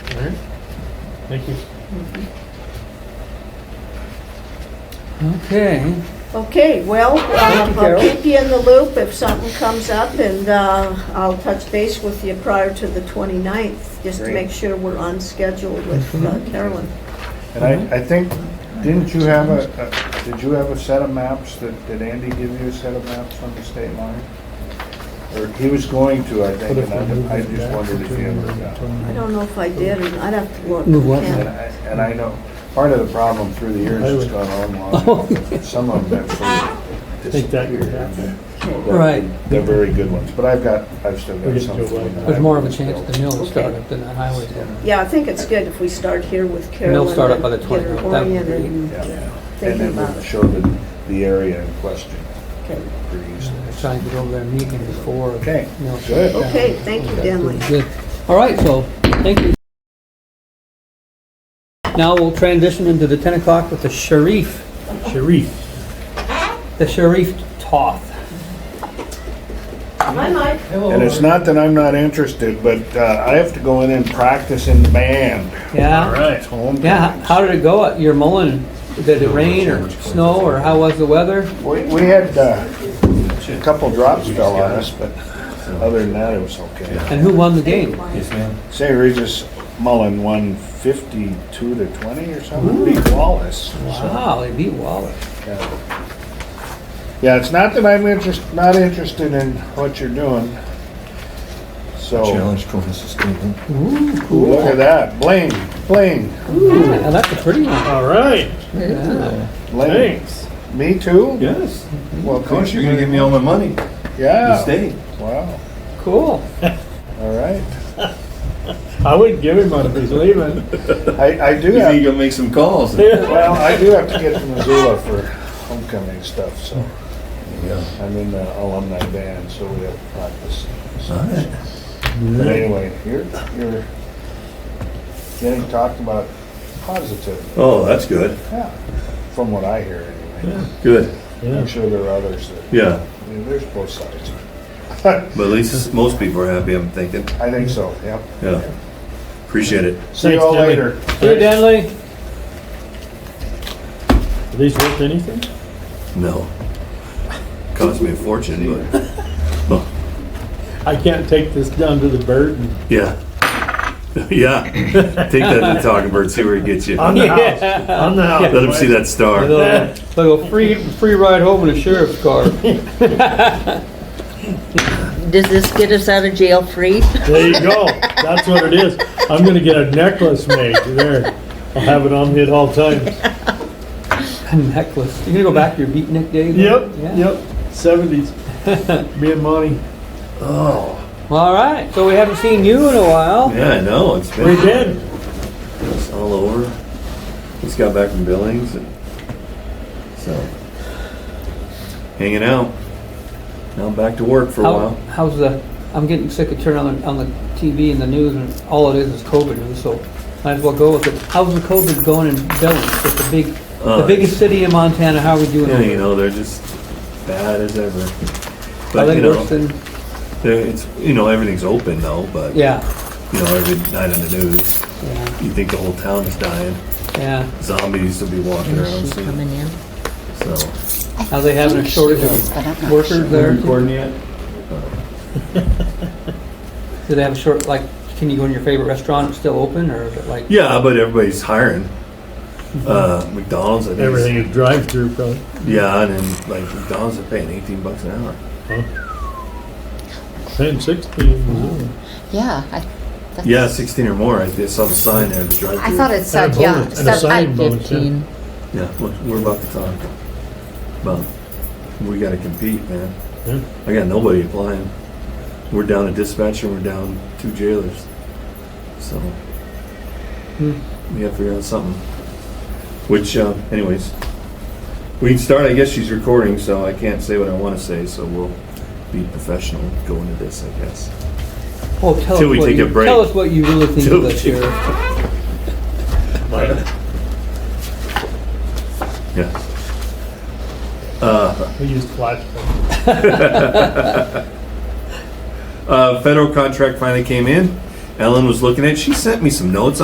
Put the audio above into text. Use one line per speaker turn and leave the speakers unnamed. right. Thank you.
Okay.
Okay, well,
you,
um, I'll
Carol.
keep you in the loop if something comes up, and uh, I'll touch base with you prior to the 29th, just to
Great.
make sure we're on schedule with uh,
Mm-hmm.
Carolyn.
And I, I think, didn't you have a, a- did you have a set of maps that, did Andy give you a set of maps on the state line? Or he was going to, I think, and I I just wondered if he ever got. it.
I don't know if I did, and I'd have to look.
Move what?
Yeah.
And I, and I know, part of the problem through the years has gone on long. Some of them have sort of
Take that, you're
disappeared. They're-
Right.
They're very good ones, but I've got, I've still
We're
got
getting
some.
to a wide-
There's more of a chance the mill will
Okay.
start up than the highway.
Yeah, I think it's good if we start here with Carolyn.
They'll start up by the
and get her
29th. That would be-
oriented and
Yeah. And
thinking
then
about
we'll
it.
show the, the area in question
Okay.
pretty easily.
I'm trying to go over there and meet him before.
Okay,
mill
good.
shuts down.
Okay, thank you, Denley.
Good. All right, so, thank you. Now we'll transition into the 10 o'clock with the Sharif,
Sharif.
the Sharif Toth.
Hi, Mike.
And it's not that I'm not interested, but uh, I have to go in and practice in the band.
All
Yeah,
right.
It's homecoming.
yeah, how did it go? You're mowing, did it rain or snow, or how was the weather?
We, we had uh, a couple drops fell on us, but other than that, it was okay.
And who won the game?
Yes, ma'am.
St. Regis Mullen won 52 to 20 or something, beat Wallace.
Wow, they beat Wallace.
Yeah, Yeah, it's not that I'm interest, not interested in what you're doing. So,
Challenge toward sustainment.
Ooh,
look at
cool.
that, bling, bling,
Now, that's a pretty one.
All right.
Yeah.
bling.
Thanks.
Me too?
Yes.
Well,
Of course,
thank
you're gonna
very
give me all my money.
much.
The
Yeah,
state.
wow,
Cool.
all right.
I wouldn't give him one if he's leaving.
I, I do
You think
have,
you'll make some calls?
well, I do have to get to Missoula for homecoming stuff, so
Yeah.
I'm in the alumni band, so we have to practice. So-
All right.
But anyway, you're, you're getting talked about positively.
Oh, that's good.
Yeah, from what I hear anyway.
Good.
I'm sure there are others that,
Yeah.
I mean, there's both sides.
But at least most people are happy, I'm thinking.
I think so, yep.
Yeah. Appreciate it.
See you
Thanks,
all
Jimmy.
later.
Hey, Denley?
Are these worth anything?
No. Cost me a fortune, but
I can't take this down to the bird and
yeah. Yeah. Take that to the talking bird, see where it gets you.
on the
Let
house. On the house.
him see that star.
They'll they'll free, free ride home in a sheriff's car.
Does this get us out of jail free?
There you go. That's what it is. I'm gonna get a necklace made there. I'll have it on me at all times.
A necklace. You gonna go back to your beatnik days?
Yep,
Yeah.
yep. Seventies. Me and Monty.
Oh.
All right, so we haven't seen you in a while.
Yeah, I know. It's
We
been
did.
it's all over. Just got back from Billings and so hanging out. Now back to work for a
How,
while.
how's the, I'm getting sick of turning on, the- on the TV and the news and all it is is COVID news, so might as well go with it. How's the COVID going in Billings? It's the big, the
Uh,
biggest city in Montana. How are we doing?
Yeah,
over
you
there?
know, they're just bad as ever.
Are
But
they
you know,
worse than,
they're- it's you know everything's open though. But
yeah,
you know every night on the news,
yeah,
you think the whole town is dying.
yeah.
Zombies will be walking around
She's
soon.
coming in.
So
Are they having a shortage
But I'm
of
not
workers there?
recording yet?
Do they have a short, like, can you go in your favorite restaurant? It's still open or is it like?
Yeah, but everybody's hiring.
Mm-hmm.
Uh, McDonald's, I think. is-
Everything is drive-through probably.
Yeah, and then like McDonald's are paying 18 bucks an hour.
Ten sixty in Missoula.
Yeah, I, that's,
Yeah, 16 or more. I I saw the sign there. The drive.
I thought it
And
said
a
yeah,
bonus- and a
said
signing
I
bonus, yeah.
fifteen.
Yeah, look, we're about to talk. But we got to compete, man.
Yeah.
I got nobody applying. We're down a dispatcher. We're down two jailers. So we got to figure out something. Which, uh, anyways, we can start. I guess she's recording, so I can't say what I want to say. So we'll be professional going into this, I guess.
Oh, tell
Till
us
we
what
take
you,
a break.
Tell us what you really think
Till
of the
we take a
sheriff.
Yeah.
We used flashlights.
Uh, federal contract finally came in. Ellen was looking at. it. She sent me some notes